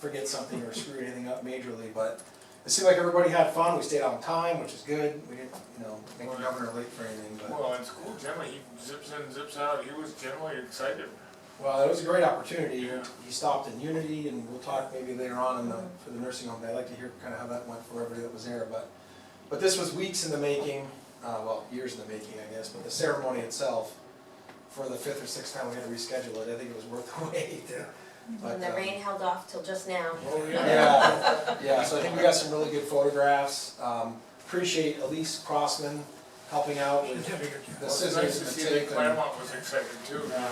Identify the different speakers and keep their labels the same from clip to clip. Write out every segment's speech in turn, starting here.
Speaker 1: forget something or screw anything up majorly, but it seemed like everybody had fun, we stayed on time, which is good, we didn't, you know, make the governor late for anything, but.
Speaker 2: Well, in school generally, he zips in, zips out, he was generally excited.
Speaker 1: Well, it was a great opportunity,
Speaker 2: Yeah.
Speaker 1: he stopped in Unity, and we'll talk maybe later on in the, for the nursing home, I'd like to hear kind of how that went for everybody that was there, but. But this was weeks in the making, uh, well, years in the making, I guess, but the ceremony itself, for the fifth or sixth time we had to reschedule it, I think it was worth the wait. But,
Speaker 3: And the
Speaker 1: um,
Speaker 3: rain held off till just now.
Speaker 2: Oh,
Speaker 1: Yeah, yeah, so I think we got some really good photographs. Um, Appreciate Elise Crossman helping out with, The
Speaker 2: Well, it's
Speaker 1: scissors
Speaker 2: nice
Speaker 1: and
Speaker 2: to
Speaker 1: the
Speaker 2: see that
Speaker 1: tape and-
Speaker 2: Claremont was excited too, now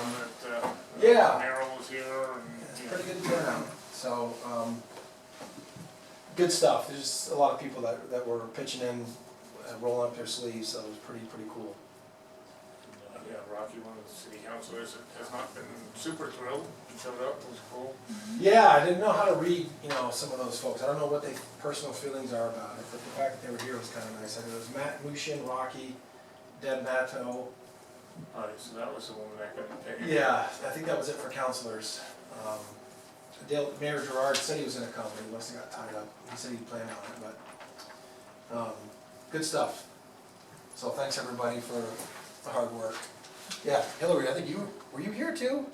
Speaker 2: that, uh,
Speaker 1: Yeah.
Speaker 2: Merrill was here and,
Speaker 1: it's
Speaker 2: you
Speaker 1: pretty
Speaker 2: know.
Speaker 1: good turnout, so, um, good stuff. There's a lot of people that, that were pitching in, uh, rolling up their sleeves, so it was pretty, pretty cool.
Speaker 2: Yeah, Rocky, one of the city councilors, has not been super thrilled, he showed up, it was cool.
Speaker 1: Yeah, I didn't know how to read, you know, some of those folks. I don't know what their personal feelings are about it, but the fact that they were here was kind of nice. I mean, it was Matt Mushin, Rocky, Deb Matto,
Speaker 2: All right, so that was the one that I couldn't pick.
Speaker 1: Yeah, I think that was it for counselors. Um, Dale, Mayor Gerard said he was gonna come, but he must have got tied up. He said he'd plan on it, but, um, good stuff. So thanks everybody for the hard work. Yeah, Hillary, I think you, were you here too?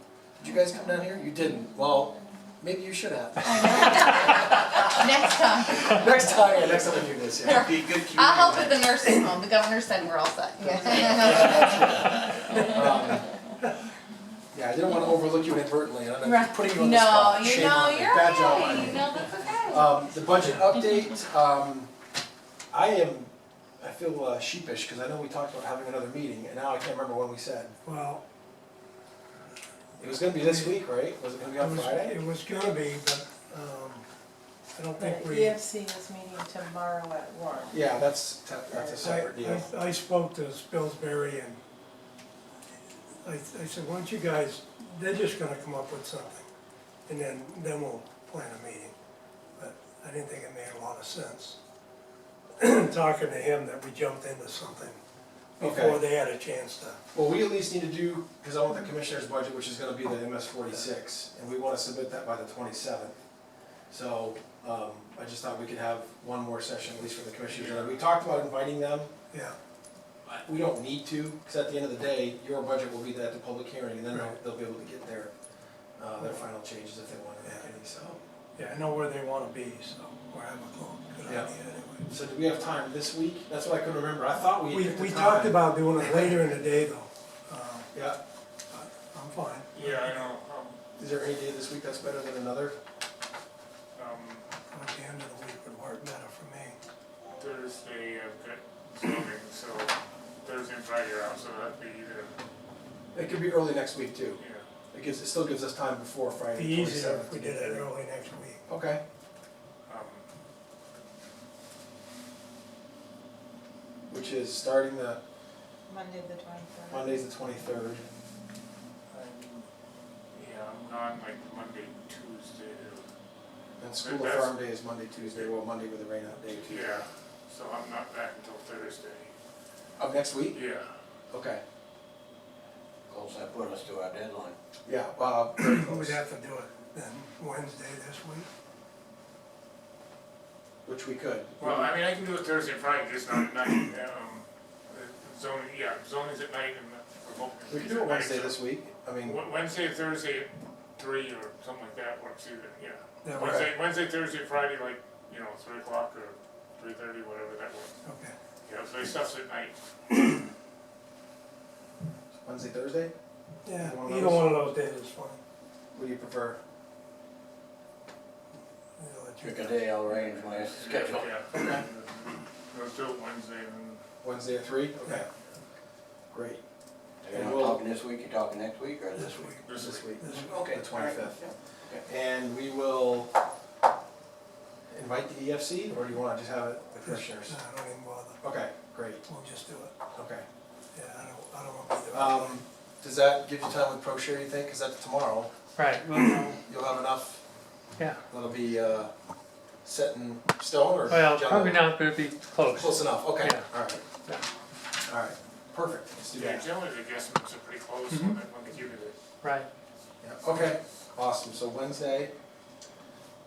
Speaker 1: Did you guys come down here? You didn't. Well, maybe you should have.
Speaker 4: Next time,
Speaker 1: Next time, yeah, next time we do this, yeah.
Speaker 5: Be a good community.
Speaker 4: I'll help with the nursing home, the governor said we're all set.
Speaker 1: Um, Yeah, I didn't wanna overlook you inadvertently, and I'm
Speaker 4: Right.
Speaker 1: putting you on the spot.
Speaker 4: No, you
Speaker 1: Shame on
Speaker 4: know,
Speaker 1: me.
Speaker 4: you're
Speaker 1: Bad job on
Speaker 4: okay,
Speaker 1: me.
Speaker 4: no, that's okay.
Speaker 1: Um, the budget update, um, I am, I feel uh, sheepish, cause I know we talked about having another meeting, and now I can't remember when we said.
Speaker 6: Well,
Speaker 1: It was gonna be this week, right? Was it gonna be
Speaker 6: it
Speaker 1: on
Speaker 6: was,
Speaker 1: Friday?
Speaker 6: it was gonna be, but, um, I don't
Speaker 7: The
Speaker 6: think we. I,
Speaker 7: EFC E is meeting tomorrow at one.
Speaker 1: Yeah, that's, te- that's a separate deal.
Speaker 6: I- I spoke to Spillsbury and I, I said, why don't you guys, they're just gonna come up with something, and then, then we'll plan a meeting. But I didn't think it made a lot of sense, talking to him, that we jumped into something before
Speaker 1: Okay.
Speaker 6: they had a chance to.
Speaker 1: Well, we at least need to do, cause I want the commissioner's budget, which is gonna be the MS forty-six, and we wanna submit that by the twenty-seventh. So, um, I just thought we could have one more session, at least for the commissioners, and we talked about inviting them,
Speaker 6: Yeah,
Speaker 1: We don't need to, because at the end of the day, your budget will be at the public hearing, and then they'll-
Speaker 6: Right.
Speaker 1: they'll be able to get their, uh, their final changes if they want to make any, so.
Speaker 6: yeah, I know where they wanna be, so, or have a call, good
Speaker 1: Yeah.
Speaker 6: idea anyway.
Speaker 1: So do we have time this week? That's what I couldn't remember, I thought we
Speaker 6: We,
Speaker 1: picked a
Speaker 6: we
Speaker 1: time.
Speaker 6: talked about doing it later in the day though, um,
Speaker 1: Yeah,
Speaker 6: I'm fine.
Speaker 2: Yeah, I know, um,
Speaker 1: is there any day this week that's better than another?
Speaker 2: um,
Speaker 6: At the end of the week would work better for me.
Speaker 2: Thursday, I've got zoning, so Thursday and Friday are out, so that'd be either,
Speaker 1: It could be early next week too,
Speaker 2: yeah.
Speaker 1: it gives, it still gives us time before Friday.
Speaker 6: Be easier
Speaker 1: 27th
Speaker 6: if we
Speaker 1: to get
Speaker 6: did it
Speaker 1: there.
Speaker 6: early next week.
Speaker 1: Okay,
Speaker 2: Um,
Speaker 1: which is starting the,
Speaker 7: Monday the twenty-third.
Speaker 1: Monday's the twenty-third,
Speaker 2: Yeah, I'm gone like Monday, Tuesday,
Speaker 1: and school of
Speaker 2: That's-
Speaker 1: farm day is Monday, Tuesday, well, Monday with the rain out day too.
Speaker 2: yeah, so I'm not back until Thursday,
Speaker 1: Of next week?
Speaker 2: yeah.
Speaker 1: Okay,
Speaker 5: Of course, that put us to our deadline.
Speaker 1: yeah, well, very
Speaker 6: We'd
Speaker 1: close.
Speaker 6: have to do it then Wednesday this week.
Speaker 1: which we could.
Speaker 2: Well, I mean, I can do it Thursday, and Friday, just not at night, um, uh, zoning, yeah, zoning's at night and the remote.
Speaker 1: We could
Speaker 2: is
Speaker 1: do it
Speaker 2: at night,
Speaker 1: Wednesday
Speaker 2: so
Speaker 1: this week, I mean,
Speaker 2: Wed- Wednesday, Thursday, at three or something like that works either, yeah.
Speaker 6: That works,
Speaker 2: Wednesday, Wednesday, Thursday, Friday, like, you know, three o'clock or three thirty, whatever that works.
Speaker 6: okay.
Speaker 2: Yeah, so stuff's at night.
Speaker 1: Wednesday, Thursday,
Speaker 6: Yeah,
Speaker 1: One of
Speaker 6: either
Speaker 1: those.
Speaker 6: one of those days is fine.
Speaker 1: what do you prefer?
Speaker 6: I'll let you
Speaker 5: Pick a
Speaker 6: guys-
Speaker 5: day, I'll arrange my schedule.
Speaker 2: Yeah. Let's do it Wednesday and
Speaker 1: Wednesday at three? Okay. Great,
Speaker 5: You're not talking this week, you're talking next week or this
Speaker 6: This
Speaker 5: week?
Speaker 6: week.
Speaker 2: this
Speaker 1: this
Speaker 2: week.
Speaker 1: week.
Speaker 6: This
Speaker 5: Okay.
Speaker 1: The 25th.
Speaker 5: all right, yeah, okay.
Speaker 1: And we will invite the EFC, or do you wanna just have it with commissioners?
Speaker 6: No, I don't even bother.
Speaker 1: Okay, great,
Speaker 6: We'll just do it.
Speaker 1: okay.
Speaker 6: Yeah, I don't, I don't want to be there.
Speaker 1: Um, does that give you time with ProShare, you think? Cause that's tomorrow,
Speaker 8: Right, well, no,
Speaker 1: you'll have enough,
Speaker 8: yeah,
Speaker 1: that'll be, uh, set in stone or?
Speaker 8: well,
Speaker 1: general?
Speaker 8: probably not, but it'd be close.
Speaker 1: Close enough, okay,
Speaker 8: Yeah.
Speaker 1: alright.
Speaker 8: Yeah.
Speaker 1: Alright, perfect, let's do
Speaker 2: Yeah,
Speaker 1: that.
Speaker 2: generally the guesstimates are pretty close when they, when they give you the
Speaker 8: Right,
Speaker 1: Yeah, Okay, awesome, so Wednesday,